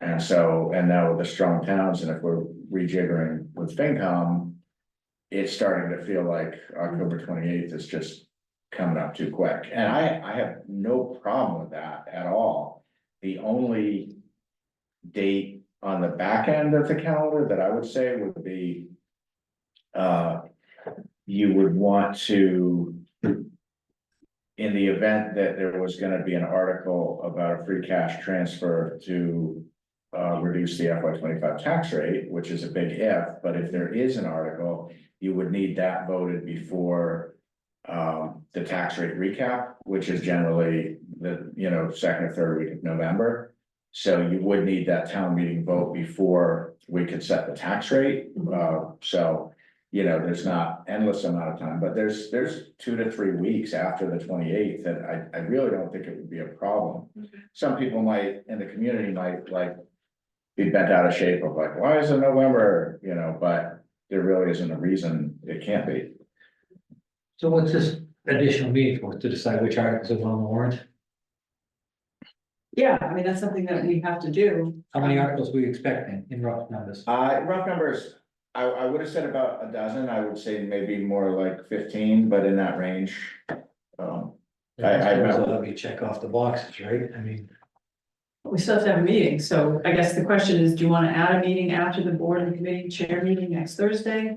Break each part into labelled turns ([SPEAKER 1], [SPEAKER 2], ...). [SPEAKER 1] And so, and now with the strong towns, and if we're rejiggering with FinCom. It's starting to feel like October twenty eighth is just coming up too quick, and I, I have no problem with that at all. The only date on the back end of the calendar that I would say would be. Uh, you would want to. In the event that there was gonna be an article about a free cash transfer to. Uh, reduce the FY twenty-five tax rate, which is a big if, but if there is an article, you would need that voted before. Um, the tax rate recap, which is generally the, you know, second or third week of November. So you would need that town meeting vote before we could set the tax rate, uh, so you know, there's not endless amount of time, but there's, there's two to three weeks after the twenty-eighth, and I, I really don't think it would be a problem. Some people might, in the community might like be bent out of shape of like, why is it November, you know, but there really isn't a reason it can't be.
[SPEAKER 2] So what's this additional meeting for, to decide which articles are on the warrant?
[SPEAKER 3] Yeah, I mean, that's something that we have to do.
[SPEAKER 2] How many articles were you expecting in rough numbers?
[SPEAKER 1] Uh, rough numbers, I, I would have said about a dozen, I would say maybe more like fifteen, but in that range. Um, I- I-
[SPEAKER 2] Let me check off the boxes, right? I mean,
[SPEAKER 3] We still have to have a meeting, so I guess the question is, do you want to add a meeting after the board and committee chair meeting next Thursday?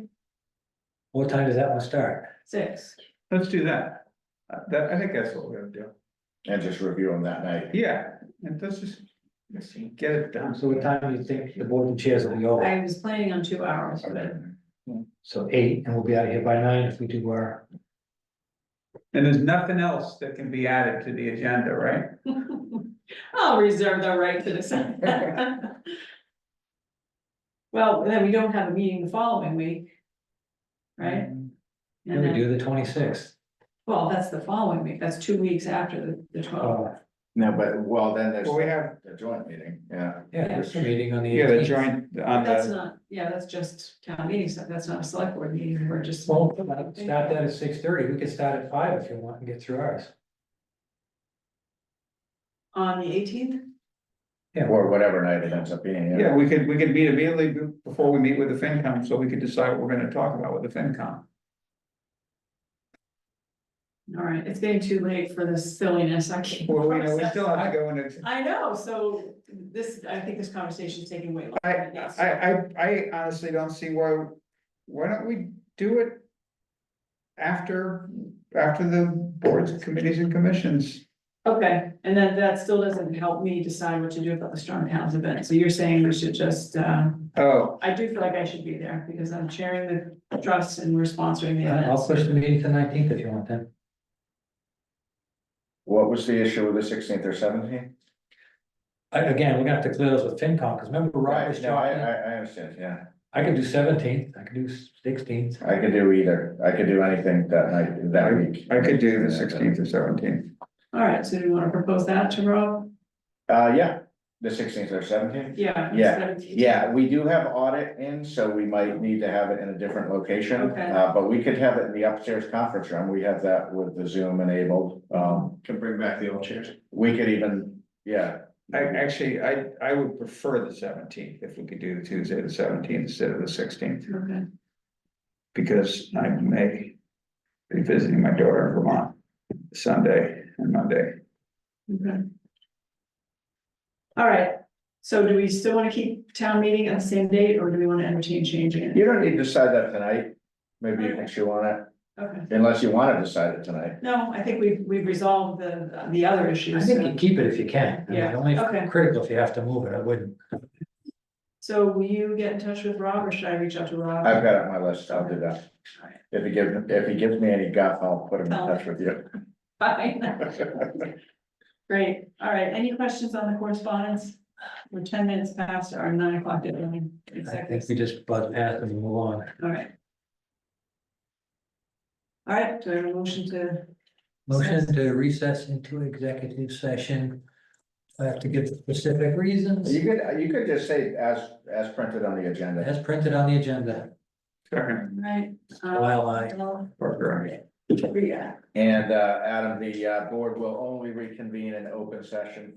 [SPEAKER 2] what time does that one start?
[SPEAKER 3] Six.
[SPEAKER 4] Let's do that. Uh, That, I think that's what we're gonna do.
[SPEAKER 1] and just review them that night.
[SPEAKER 4] Yeah, and let's just, let's get it done.
[SPEAKER 2] So what time do you think the board and chairs will be over?
[SPEAKER 3] I was planning on two hours,
[SPEAKER 1] Okay.
[SPEAKER 3] but
[SPEAKER 2] So eight, and we'll be out of here by nine if we do our,
[SPEAKER 4] And there's nothing else that can be added to the agenda, right?
[SPEAKER 3] I'll reserve the right to decide. Well, then we don't have a meeting the following week. Right?
[SPEAKER 2] and Mm. we do the twenty-sixth.
[SPEAKER 3] Well, that's the following week, that's two weeks after the, the twelfth.
[SPEAKER 2] Oh,
[SPEAKER 1] No, but, well, then there's
[SPEAKER 4] Well, we have,
[SPEAKER 1] the joint meeting, yeah.
[SPEAKER 2] yeah, there's a meeting on the
[SPEAKER 4] yeah, the
[SPEAKER 2] eighteenth.
[SPEAKER 4] joint on
[SPEAKER 3] That's
[SPEAKER 4] the,
[SPEAKER 3] not, yeah, that's just town meeting, so that's not a select board meeting, we're just.
[SPEAKER 2] Well, start that at six thirty, we could start at five if you want and get through ours.
[SPEAKER 3] On the eighteenth?
[SPEAKER 1] Or whatever night it ends up being,
[SPEAKER 4] yeah,
[SPEAKER 1] yeah.
[SPEAKER 4] we could, we could meet immediately be- before we meet with the FinCom, so we could decide what we're gonna talk about with the FinCom.
[SPEAKER 3] All right, it's getting too late for this silliness, I can't.
[SPEAKER 4] Well, we know, we
[SPEAKER 3] process.
[SPEAKER 4] still have to go into,
[SPEAKER 3] I know, so this, I think this conversation's taking way longer.
[SPEAKER 4] I,
[SPEAKER 3] than it needs to.
[SPEAKER 4] I, I, I honestly don't see why, why don't we do it? After, after the boards, committees and commissions,
[SPEAKER 3] Okay, and then that still doesn't help me decide what to do about the Strong Towns event, so you're saying we should just, uh,
[SPEAKER 4] oh,
[SPEAKER 3] I do feel like I should be there, because I'm chairing the trust and we're sponsoring the
[SPEAKER 2] Uh, I'll
[SPEAKER 3] event.
[SPEAKER 2] push the meeting to nineteenth if you want then.
[SPEAKER 1] What was the issue with the sixteenth or seventeenth?
[SPEAKER 2] I- Again, we're gonna have to clear those with FinCom, because remember Rob was
[SPEAKER 1] No, I,
[SPEAKER 2] talking,
[SPEAKER 1] I, I understand, yeah.
[SPEAKER 2] I could do seventeenth, I could do sixteenth.
[SPEAKER 1] I could do either. I could do anything that night, that week.
[SPEAKER 4] I could do the sixteenth or seventeenth.
[SPEAKER 3] All right, so do you wanna propose that to Rob?
[SPEAKER 1] Uh, yeah, the sixteenth or seventeenth.
[SPEAKER 3] Yeah.
[SPEAKER 1] Yeah,
[SPEAKER 3] 17.
[SPEAKER 1] Yeah, we do have audit in, so we might need to have it in a different location.
[SPEAKER 3] Okay.
[SPEAKER 1] Uh, but we could have it in the upstairs conference room. We have that with the Zoom enabled. Um,
[SPEAKER 5] Can bring back the old chairs.
[SPEAKER 1] we could even, yeah.
[SPEAKER 4] I actually, I I would prefer the seventeenth if we could do the Tuesday, the seventeenth instead of the sixteenth,
[SPEAKER 3] Okay,
[SPEAKER 4] because I may. Be visiting my daughter in Vermont Sunday and Monday.
[SPEAKER 3] okay. All right, so do we still wanna keep town meeting on the same date, or do we wanna entertain changing it?
[SPEAKER 1] You don't need to decide that tonight. Maybe you can chew on it,
[SPEAKER 3] Okay,
[SPEAKER 1] unless you want to decide it tonight.
[SPEAKER 3] no, I think we've, we've resolved the, the other
[SPEAKER 2] I
[SPEAKER 3] issues,
[SPEAKER 2] think
[SPEAKER 3] so-
[SPEAKER 2] you keep it if you can, I mean,
[SPEAKER 3] Yeah, okay.
[SPEAKER 2] only critical if you have to move it, I wouldn't.
[SPEAKER 3] So will you get in touch with Rob or should I reach out to Rob?
[SPEAKER 1] I've got it on my list. I'll do that.
[SPEAKER 3] Alright.
[SPEAKER 1] If he gives, if he gives me any guff, I'll put him in touch with you.
[SPEAKER 3] Fine. Great, all right, any questions on the correspondence? We're ten minutes past our nine o'clock deadline.
[SPEAKER 2] I think we just buzz past and move on.
[SPEAKER 3] All right. All right, do I have a motion to,
[SPEAKER 2] Motion to recess into executive session. I have to give specific reasons
[SPEAKER 1] You could, you could just say as, as printed on the agenda.
[SPEAKER 2] as printed on the agenda.
[SPEAKER 4] Second,
[SPEAKER 3] right? uh,
[SPEAKER 2] While I,
[SPEAKER 4] Parker, aye.
[SPEAKER 3] Yeah.
[SPEAKER 1] And, uh, Adam, the, uh, board will only reconvene in open session